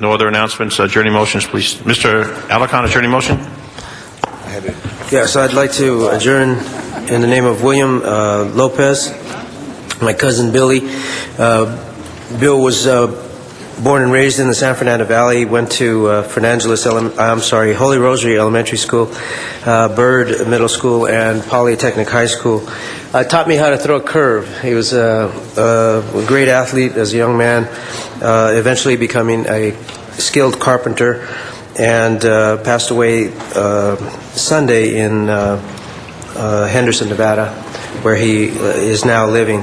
No other announcements, adjourning motions, please. Mr. Alarcon, adjourning motion? Yeah, so I'd like to adjourn in the name of William uh, Lopez, my cousin Billy. Uh, Bill was uh, born and raised in the San Fernando Valley, went to uh, Fernandez, Ele- I'm sorry, Holy Rosary Elementary School, uh, Byrd Middle School, and Polytechnic High School. Uh, Taught me how to throw a curve. He was a a great athlete as a young man, uh, eventually becoming a skilled carpenter and uh, passed away uh, Sunday in uh, uh, Henderson, Nevada, where he uh, is now living.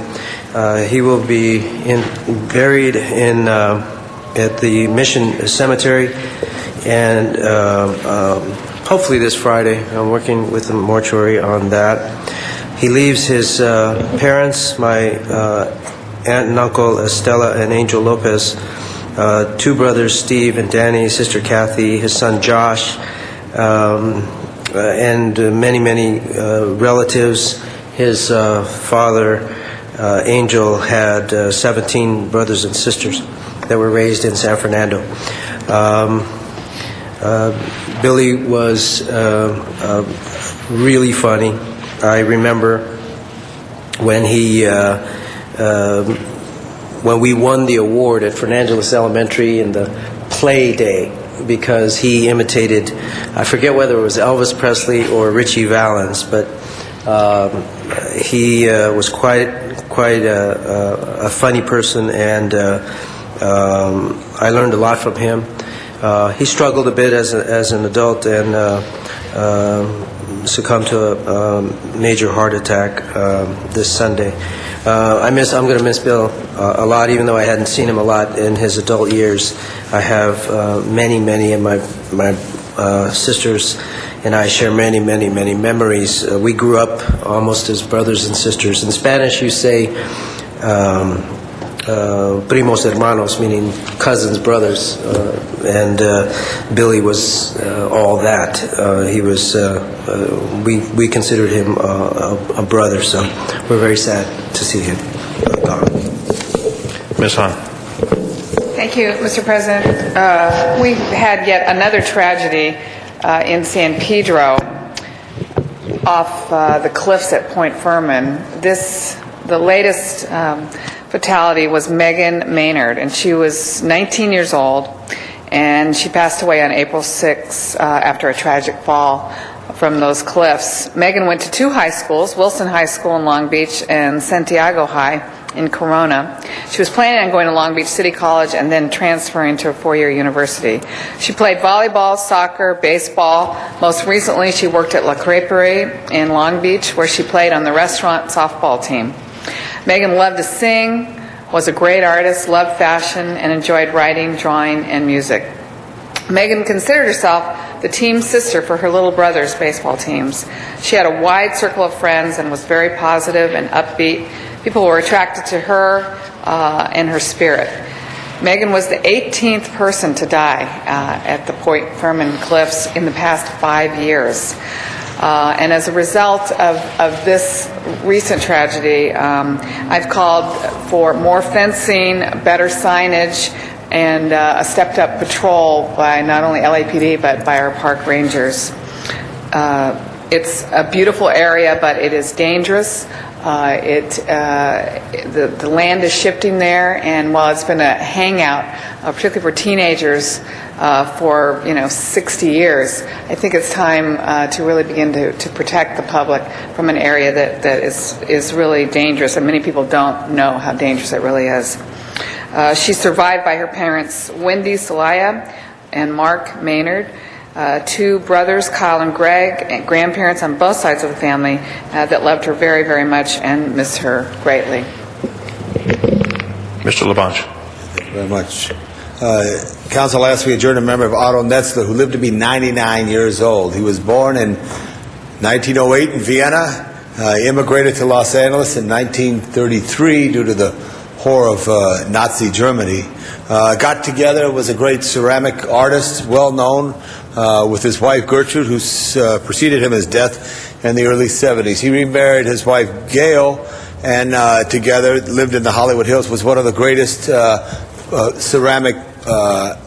Uh, he will be in, buried in uh, at the Mission Cemetery, and uh, um, hopefully this Friday. I'm working with the mortuary on that. He leaves his uh, parents, my uh, aunt and uncle Estella and Angel Lopez, uh, two brothers, Steve and Danny, his sister Kathy, his son Josh, um, uh, and uh, many, many uh, relatives. His uh, father, uh, Angel, had uh, 17 brothers and sisters that were raised in San Fernando. Um, uh, Billy was uh, uh, really funny. I remember when he, uh, um when we won the award at Fernandez Elementary in the play day, because he imitated, I forget whether it was Elvis Presley or Richie Valens, but um, he uh, was quite quite a, a, a funny person, and uh, um, I learned a lot from him. Uh, he struggled a bit as, a, as an adult and uh, um succumbed to a um, major heart attack um, this Sunday. Uh, I miss. I'm going to miss Bill uh, a lot, even though I hadn't seen him a lot in his adult years. I have uh, many, many in my my uh, sisters and I share many, many, many memories. Uh, we grew up almost as brothers and sisters. In Spanish, you say um, uh, primos hermanos, meaning cousins, brothers. Uh, and uh, Billy was uh, all that. Uh, he was. Uh, uh, we we considered him uh, a, a brother. So we're very sad to see him uh, gone. Ms. Han? Thank you, Mr. President. Uh, We've had yet another tragedy uh, in San Pedro off uh, the cliffs at Point Furman. This, the latest um, fatality was Megan Maynard, and she was 19 years old, and she passed away on April 6 uh, after a tragic fall from those cliffs. Megan went to two high schools, Wilson High School in Long Beach and Santiago High in Corona. She was planning on going to Long Beach City College and then transferring to a four-year university. She played volleyball, soccer, baseball. Most recently, she worked at La Creperie in Long Beach, where she played on the restaurant softball team. Megan loved to sing, was a great artist, loved fashion, and enjoyed writing, drawing, and music. Megan considered herself the team sister for her little brother's baseball teams. She had a wide circle of friends and was very positive and upbeat. People were attracted to her uh, and her spirit. Megan was the 18th person to die uh, at the Point Furman Cliffs in the past five years. Uh, and as a result of, of this recent tragedy, um, I've called for more fencing, better signage, and uh, a stepped-up patrol by not only LAPD but by our park rangers. Uh, It's a beautiful area, but it is dangerous. Uh, It, uh, the the land is shifting there, and while it's been a hangout, uh, particularly for teenagers, uh, for, you know, 60 years, I think it's time uh, to really begin to to protect the public from an area that that is is really dangerous, and many people don't know how dangerous it really is. Uh, She's survived by her parents, Wendy Salaya and Mark Maynard, uh, two brothers, Kyle and Greg, and grandparents on both sides of the family uh, that loved her very, very much and miss her greatly. Mr. Labange? very much. Uh, Council asked me to adjourn a member of Otto Netzler, who lived to be 99 years old. He was born in 1908 in Vienna, uh, immigrated to Los Angeles in 1933 due to the horror of uh, Nazi Germany. Uh, got together, was a great ceramic artist, well known, uh, with his wife Gertrude, who uh, preceded him as death in the early 70s. He remarried his wife Gail and uh, together lived in the Hollywood Hills, was one of the greatest uh, uh, ceramic uh,